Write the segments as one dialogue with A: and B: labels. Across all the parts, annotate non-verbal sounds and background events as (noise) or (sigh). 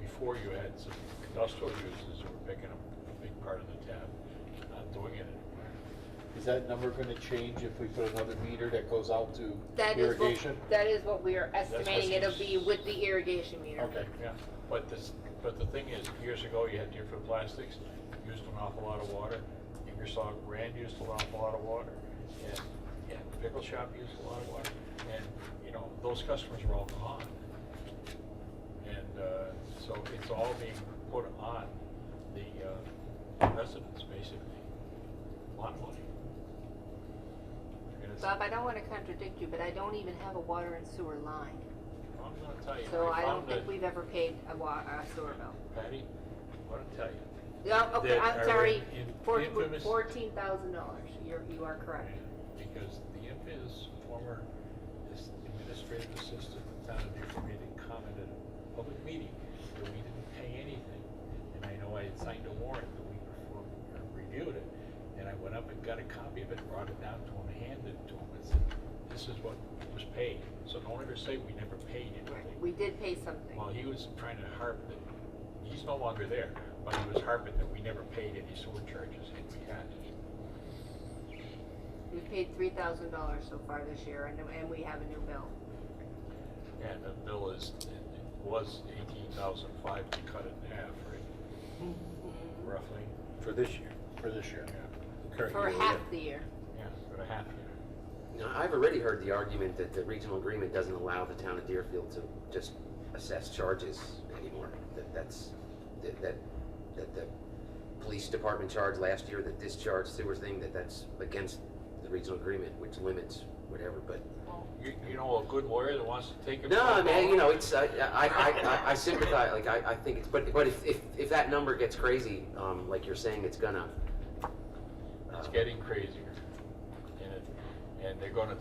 A: before you had some industrial uses that were picking up a big part of the tab, not doing it anymore.
B: Is that number gonna change if we put another meter that goes out to
C: That is
B: irrigation?
C: what, that is what we are
A: what
C: estimating
A: she-
C: it'll be with the irrigation meter.
A: Okay, yeah, but this, but the thing is, years ago, you had different plastics, used an awful lot of water. Ingersoll Rand used an awful lot of water, and, and Pickle Shop used a lot of water. And, you know, those customers were all gone. And, uh, so it's all being put on the uh, residents, basically. A Lot of money. And it's-
C: Bob, I don't wanna contradict you, but I don't even have a water and sewer line,
A: I'm gonna tell you,
C: so
A: I
C: I don't
A: Oh, found
C: think
A: that-
C: we've ever paid a wa, a sewer bill.
A: Patty, I'm gonna tell you.
C: No, okay,
A: That
C: I'm
A: are
C: sorry,
A: in- infamous-
C: fourteen thousand dollars, you're, you are correct.
A: Because the IMPA's former is- administrative assistant, at the town of Deerfield meeting, commented at a public meeting that we didn't pay anything. And I know I had signed a warrant the week before we reviewed it, and I went up and got a copy of it, brought it down to him, handed it to him, and said, this is what was paid. So don't ever say we never paid anything.
C: We did pay something.
A: Well, he was trying to harp that, he's no longer there, but he was harping that we never paid any sewer charges, and we had.
C: We've paid three thousand dollars so far this year, and, and we have a new
A: (laughs)
C: bill.
A: And the bill is, it it was eighteen thousand five to cut it in half, right? Roughly.
D: For this year.
B: For this year.
A: Yeah,
D: current
C: For
D: year,
C: half
D: yeah.
C: the year.
A: yeah, for a half year.
E: Now, I've already heard the argument that the regional agreement doesn't allow the town of Deerfield to just assess charges anymore. That that's, that, that, that the police department charge last year, the discharge sewer thing, that that's against the regional agreement, which limits whatever, but.
A: You, you know, a good lawyer that wants to take it.
E: No, I
A: from the
E: mean, you
A: law?
E: know, it's, I, I, I- I, I sympathize, like, I, I think it's, but, but if, if, if that number gets crazy, um, like you're saying, it's gonna.
A: It's
E: uh,
A: getting crazier. And it, and they're gonna,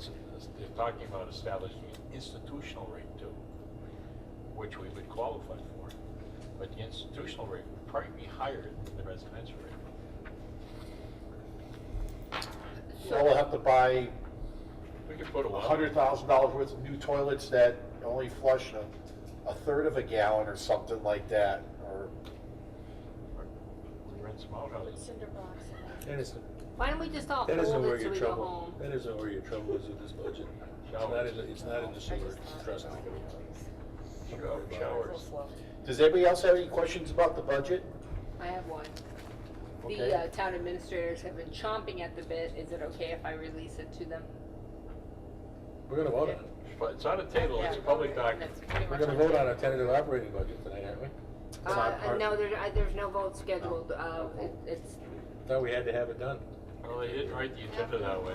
A: they're talking about establishing an institutional rate too, which we would qualify for. But the institutional rate would probably be higher than the residential rate.
B: So we'll have to buy
A: We could put a
B: a
A: well.
B: hundred thousand dollars worth of new toilets that only flush a, a third of a gallon or something like that, or.
A: We rent some out houses.
F: Cinder blocks.
D: That is,
C: Why don't we just all
D: that isn't
C: hold
D: where
C: it till we
D: your
C: go home?
D: trouble, that isn't where your trouble is with this budget. It's not in, the- it's not in the sewer, trust me.
A: Showers.
B: Does anybody else have any questions about the budget?
C: I have one.
B: Okay.
C: The uh, town administrators have been chomping at the bit. Is it okay if I release it to them?
D: We're gonna vote on it.
A: But it's on a table, it's a public document.
C: That's pretty
D: We're
C: much
D: gonna
C: what-
D: vote on our tentative operating budget tonight, aren't we?
C: Uh,
B: It's not
C: uh,
B: part-
C: no, there, I, there's no vote scheduled. Uh, it, it's,
D: Thought we had to have it done.
A: Well, they didn't write the agenda that way.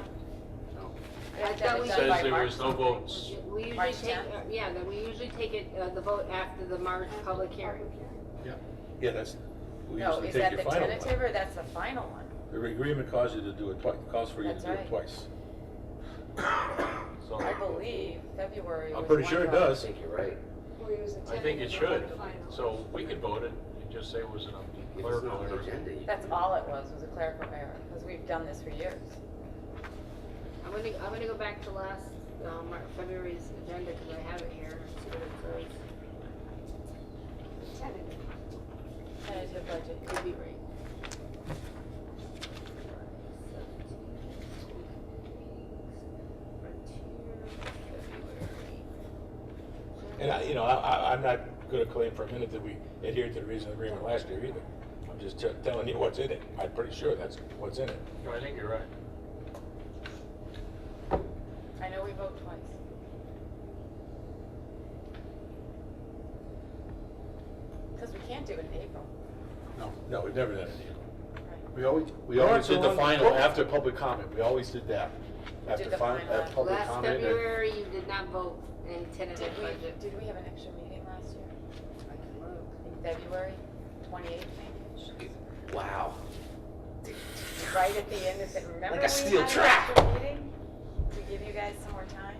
C: I
F: that
C: thought
A: It
C: we
F: was
C: did-
F: done by
A: says there
F: March
A: was no votes.
C: we usually
F: March
C: take,
F: 10th?
C: uh, yeah, that we usually take it, uh, the vote after the March public hearing.
F: E
D: Yeah, that's, we
F: No,
D: usually
F: is
D: take
F: that
D: your
F: the
D: final
F: tentative
D: one.
F: or that's the final one?
D: The agreement calls you to do it twice, calls for you to
F: That's
D: do it
F: right.
D: twice.
A: So
F: I believe February
D: I'm
F: was
D: pretty
F: one
D: sure it
F: vote.
E: I
D: does.
E: think you're right.
A: I think it should. So we could vote it and just say it was an
E: If it's
A: clerical
E: not on the
A: error.
E: agenda, you
F: That's
E: can-
F: all it was, was a clerical error, because we've done this for years.
C: I'm gonna, I'm gonna go back to last, um, Mar- February's agenda, cause I have it here. See what it says.
F: Tentative budget.
C: Could be right.
D: And I, you know, I, I, I'm not gonna claim for a minute that we adhered to the regional agreement last year either. I'm just te- telling you what's in it. I'm pretty sure that's what's in it.
A: No, I think you're right.
F: I know we vote twice. Because we can't do it in April.
D: No, we've never done it either.
B: We always, we
D: Mark,
B: always did
D: the
B: the
D: one-
B: final
D: oh.
B: after public comment, we always did that.
F: We
B: After
F: did the
B: fin-
F: final
B: after public
C: Last
B: comment. and-
C: February, you did not vote in tentative
F: Did we,
C: budget.
F: did we have an extra meeting last year? In February twenty-eighth, maybe?
E: Wow.
F: Right at the end of it, remember
E: Like a
F: we
E: steel
F: had an
E: trap.
F: extra meeting? To give you guys some more time?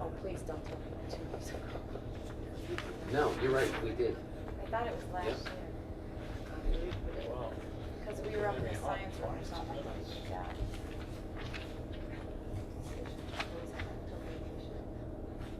F: Oh, please don't tell me two years ago.
E: No, you're right, we did.
F: I thought it was last
E: Yep.
F: year,
A: Wow.
F: because we were up in the science room or something like that.